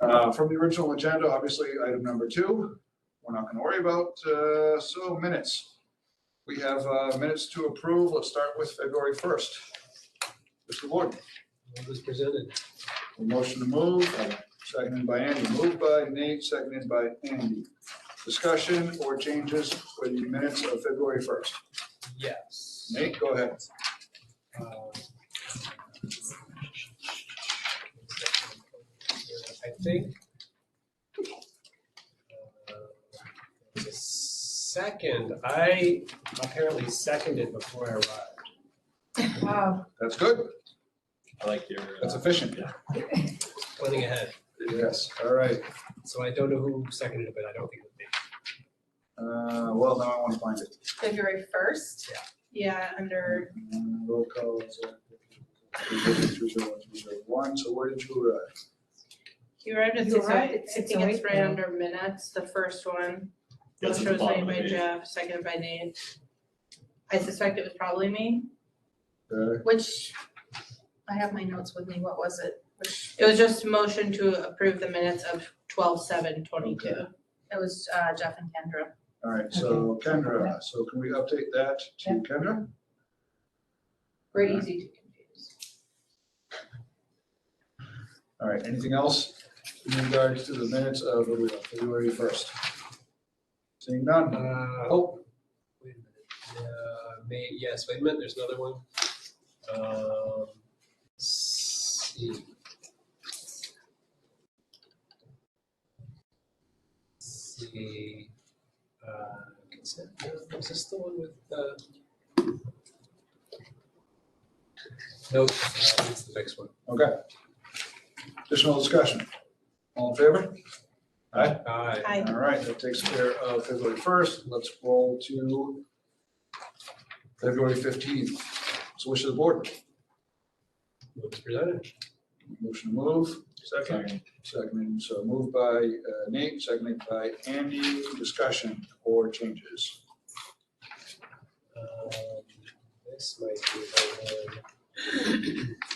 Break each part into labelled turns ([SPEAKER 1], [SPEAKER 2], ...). [SPEAKER 1] Uh, From the original agenda, obviously, item number two, we're not going to worry about. Uh, So minutes. We have uh, minutes to approve. Let's start with February 1st. Mr. Ward,
[SPEAKER 2] It was presented.
[SPEAKER 1] a motion to move, uh, seconded by Andy, moved by Nate, seconded by Andy. Discussion or changes for the minutes of February 1st?
[SPEAKER 2] Yes.
[SPEAKER 1] Nate, go ahead.
[SPEAKER 2] Uh, I think. uh, the Second, I apparently seconded before I arrived.
[SPEAKER 3] Wow.
[SPEAKER 1] That's good.
[SPEAKER 4] I like your.
[SPEAKER 1] That's efficient.
[SPEAKER 2] Planning ahead,
[SPEAKER 1] Yes, all right.
[SPEAKER 2] so I don't know who seconded it, but I don't think it was me.
[SPEAKER 1] Uh, Well, now I want to find it.
[SPEAKER 3] February first? Yeah, under,
[SPEAKER 1] Uh, Roll call. is, uh, 301, so where did you arrive?
[SPEAKER 3] you arrived at
[SPEAKER 5] You
[SPEAKER 3] six, oh-
[SPEAKER 5] arrived
[SPEAKER 3] I
[SPEAKER 5] at
[SPEAKER 3] think it's
[SPEAKER 5] 6:08,
[SPEAKER 3] right
[SPEAKER 5] yeah.
[SPEAKER 3] under minutes, the first one.
[SPEAKER 4] That's at
[SPEAKER 3] Motion
[SPEAKER 4] the
[SPEAKER 3] was
[SPEAKER 4] bottom of
[SPEAKER 3] made
[SPEAKER 4] the
[SPEAKER 3] by
[SPEAKER 4] page.
[SPEAKER 3] Jeff, seconded by Nate. I suspect it was probably me,
[SPEAKER 1] Uh,
[SPEAKER 3] which, I have my notes with me, what was it? It was just motion to approve the minutes of twelve seven twenty-two. It was uh, Jeff and Kendra.
[SPEAKER 1] All right, so Kendra, so can we update that to Kendra?
[SPEAKER 5] Very easy to confuse.
[SPEAKER 1] All right, anything else in regards to the minutes of what are we on, February 1st? Seeing none,
[SPEAKER 2] Uh, oh, wait a minute. Uh, May, yes, wait a minute, there's another one. Um, let's see. Let's See, uh, consent, no, is this the one with, uh? Nope, uh, it's the next one.
[SPEAKER 1] okay. Additional discussion. All in favor?
[SPEAKER 2] Aye.
[SPEAKER 3] Hi.
[SPEAKER 1] All right, that takes care of February 1st. Let's roll to February 15th. So wish of the board.
[SPEAKER 2] What was presented?
[SPEAKER 1] Motion to move.
[SPEAKER 4] Second.
[SPEAKER 1] Seconded, so moved by uh, Nate, seconded by Andy. Discussion or changes?
[SPEAKER 2] Um, this might be the one. uh,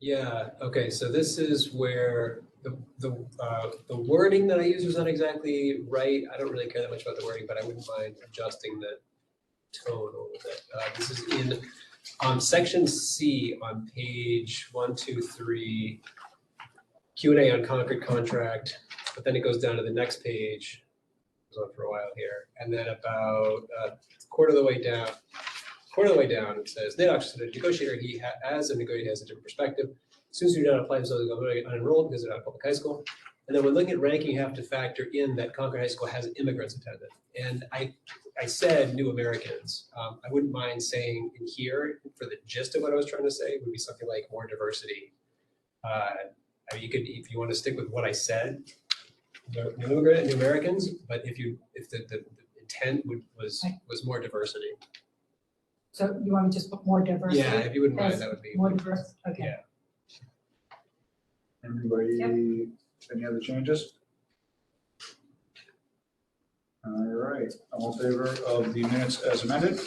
[SPEAKER 2] Yeah, okay, so this is where the, the, uh, the wording that I used was not exactly right. I don't really care that much about the wording, but I wouldn't mind adjusting the tone a little bit. Uh, this is in, um, section C on page one, two, three, Q and A on Concord contract, but then it goes down to the next page. Goes on for a while here, and then about, uh, quarter of the way down, quarter of the way down, it says, Nate Oxford, the negotiator, he ha- as a negotiator, has a different perspective. Students who do not apply themselves to going unenrolled because they're not a public high school. And then when looking at ranking, you have to factor in that Concord High School has immigrants attended. And I, I said new Americans. Um, I wouldn't mind saying in here, for the gist of what I was trying to say, would be something like more diversity. Uh, I mean, you could, if you want to stick with what I said, the new immigrant and new Americans, but if you, if the, the the intent would, was, was more diversity.
[SPEAKER 5] So you want me to just put more diversity?
[SPEAKER 2] Yeah, if you wouldn't mind,
[SPEAKER 5] as
[SPEAKER 2] that would be.
[SPEAKER 5] More diverse, okay.
[SPEAKER 2] Yeah.
[SPEAKER 1] Anybody, any other changes? All right, all in favor of the minutes as amended?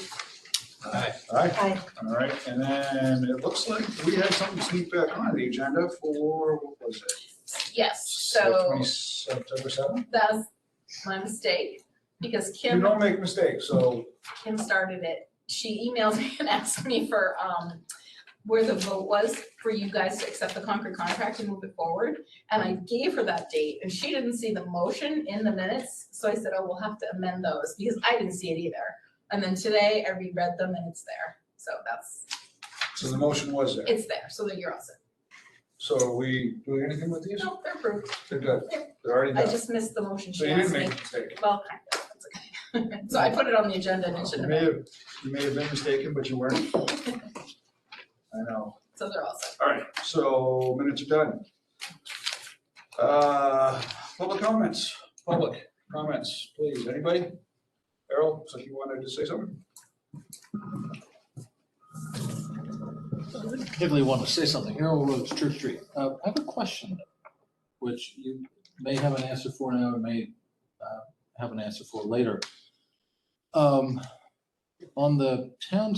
[SPEAKER 2] Aye.
[SPEAKER 1] Aye.
[SPEAKER 3] Aye.
[SPEAKER 1] All right, and then it looks like we have something to sneak back on the agenda for, what was it?
[SPEAKER 5] Yes,
[SPEAKER 1] September- September 7th?
[SPEAKER 5] that's my mistake, because
[SPEAKER 1] You don't make mistakes, so
[SPEAKER 5] Kim started it. She emailed me and asked me for, um, where the vote was for you guys to accept the Concord contract and move it forward. And I gave her that date and she didn't see the motion in the minutes, so I said, oh, we'll have to amend those because I didn't see it either. And then today I reread them and it's there. So that's,
[SPEAKER 1] so the motion was there.
[SPEAKER 5] it's there, so that you're all set.
[SPEAKER 1] So are we doing anything with these?
[SPEAKER 5] No, they're approved.
[SPEAKER 1] They're good. They're already
[SPEAKER 5] I
[SPEAKER 1] done.
[SPEAKER 5] just missed the motion
[SPEAKER 1] So
[SPEAKER 5] she
[SPEAKER 1] you
[SPEAKER 5] asked
[SPEAKER 1] didn't
[SPEAKER 5] me.
[SPEAKER 1] make a mistake.
[SPEAKER 5] Well, kind of, that's okay. So I put it on the agenda and it
[SPEAKER 1] You
[SPEAKER 5] shouldn't
[SPEAKER 1] may
[SPEAKER 5] have,
[SPEAKER 1] have, you may have been mistaken, but you weren't. I know.
[SPEAKER 5] so they're all set.
[SPEAKER 1] All right, so minutes are done. Uh, Public comments, public comments, please, anybody? Errol, so you wanted to say something?
[SPEAKER 6] particularly want to say something. Harold Roads, Church Street. Uh, I have a question, which you may have an answer for now, and may uh, have an answer for later. Um, On the town